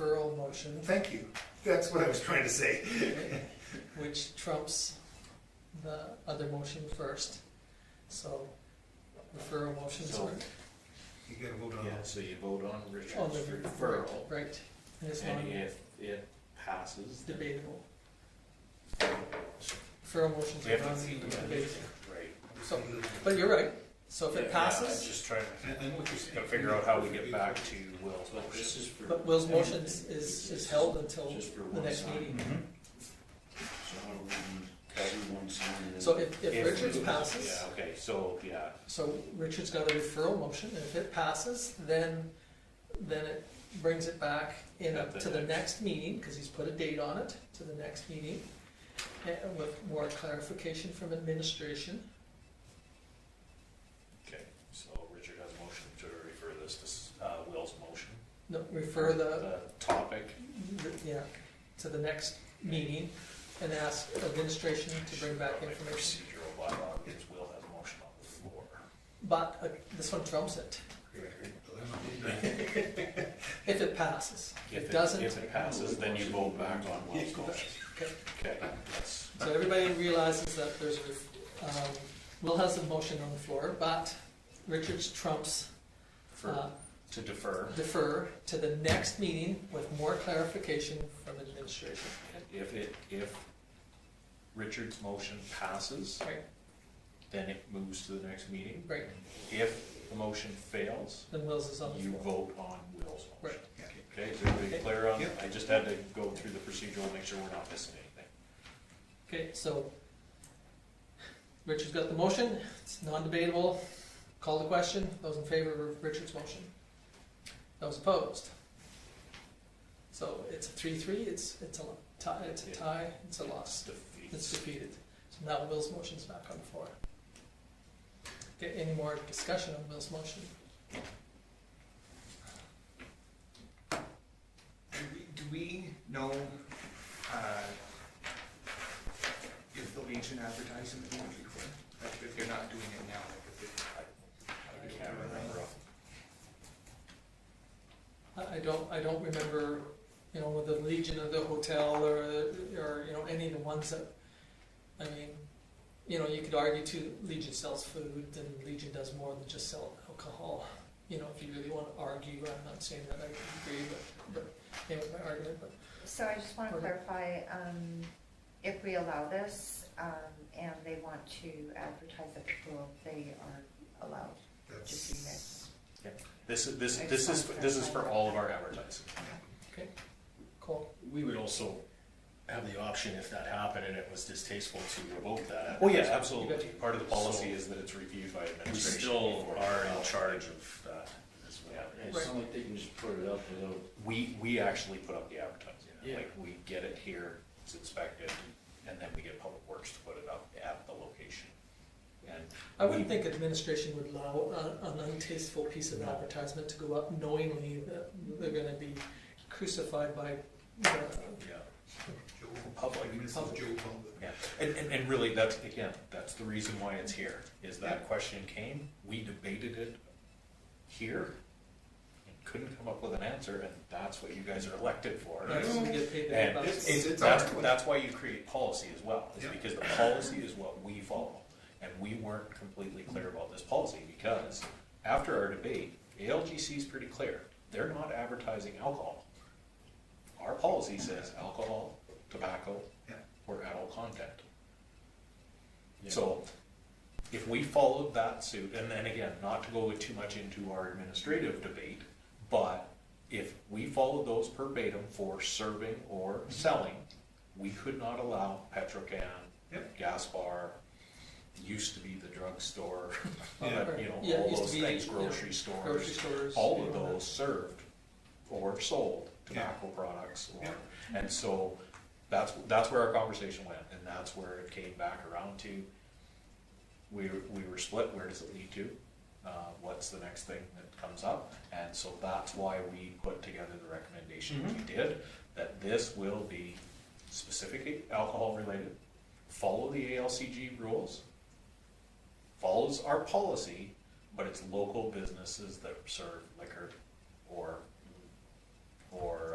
no motion, Thank you. That's what I was trying to say. which trumps the other motion first. So refer a motion to, So- You gotta vote on Yeah, it. so you vote on on Richard's Oh, the referral, right, this and one if it passes, then. debatable. Refer a motion We to haven't seen the non-debatable. Right. So, but you're right, so if Yeah, it yeah, I'm passes, just trying I- I'm with you. to, gotta figure out how we get back to Will's But this motion. is for. but Will's motion is, is is held until Just for the one next sign. meeting. So how do we, everyone sign it? So if, if If Richards we- passes, Yeah, okay, so, yeah, so Richard's got a referral motion, and if it passes, then, then it brings it back in, At the to the next. next meeting, because he's put a date on it, to the next meeting, and with more clarification from administration. okay, so Richard has a motion to refer this to, s- uh, Will's motion. No, refer the, The topic, the- yeah, to the next meeting, and ask administration to bring back probably information. procedural bylaw, because Will has a motion on the floor. But uh, this one trumps it, if it passes. If it doesn't, If it passes, then you vote back on Will's motion, okay. okay, that's. So everybody realizes that there's a, um, Will has a motion on the floor, but Richards trumps For, uh, to defer, defer to the next meeting with more clarification from administration. and if it, if Richard's motion passes, Right, then it moves to the next meeting. right, If the motion fails, then Will's is on the you floor. vote on Will's Right. motion. Okay, is everybody clear on, Yep. I just had to go through the procedural, make sure we're not missing anything. Okay, so Richard's got the motion, it's non-debatable, call the question, those in favor of Richard's motion. Those opposed. So it's a three-three, it's, it's a tie, it's a Yeah. tie, it's a loss. It's defeat. It's defeated. So now Will's motion's back on the floor. Okay, any more discussion on Will's motion? Do we- Do we know uh, if the Legion advertising is going to be clear? Like, if they're not doing it now, like, if they... I can't remember. off- I, I don't, I don't remember, you know, with the Legion of the Hotel or, or, you know, any of the ones that, I mean, you know, you could argue too, Legion sells food and Legion does more than just sell alcohol. You know, if you really want to argue, I'm not saying that I agree, but, but, anyway, my argument, but So I just want to Okay. clarify, um, if we allow this, um, and they want to advertise at the pool, they are allowed to do that. This is, this, I this is, just wanted to this is for clarify. all of our advertising. cool. We would also have the option, if that happened and it was distasteful, to revoke that. Well, Oh, yeah, absolutely. Part of the policy So- is that it's reviewed by We administration. still before- are in charge of that. is what- Yeah. It's not like they can just put it up without, We, we actually put up the advertising. Yeah. Like, we get it here, it's inspected, and then we get Public Works to put it up at the location. And I wouldn't we- think administration would allow a- an untasteful piece of advertisement to go up knowingly that they're gonna be crucified by the Yeah, Public. This is Joe Public. Public. yeah. And, and, and really, that's, again, that's the reason why it's here, is Yeah. that question came, we debated it here, and couldn't come up with an answer, and that's what you guys are elected for. Right, so we get paid And the big bucks. it's- It's that's, our- that's why you create policy as well, is Yeah. because the policy is what we follow. And we weren't completely clear about this policy, because after our debate, ALGC is pretty clear, they're not advertising alcohol. Our policy says alcohol, tobacco, Yeah. or adult content. So if we followed that suit, and then again, not to go too much into our administrative debate, but if we followed those verbatim for serving or Mm-hmm. selling, we could not allow Petrocan, Yep. gas bar, used to be the drugstore, Yeah. you know, Yeah, it all used to those be, things, you know, grocery grocery stores, stores. all of you know, those served or sold Yeah. tobacco products. or- Yeah. And so that's, that's where our conversation went and that's where it came back around to. We, were- we were split, where does it lead to? Uh, what's the next thing that comes up? And so that's why we put together the recommendation we did, that this will be specific alcohol related, follow the ALCG rules, follows our policy, but it's local businesses that serve liquor or, or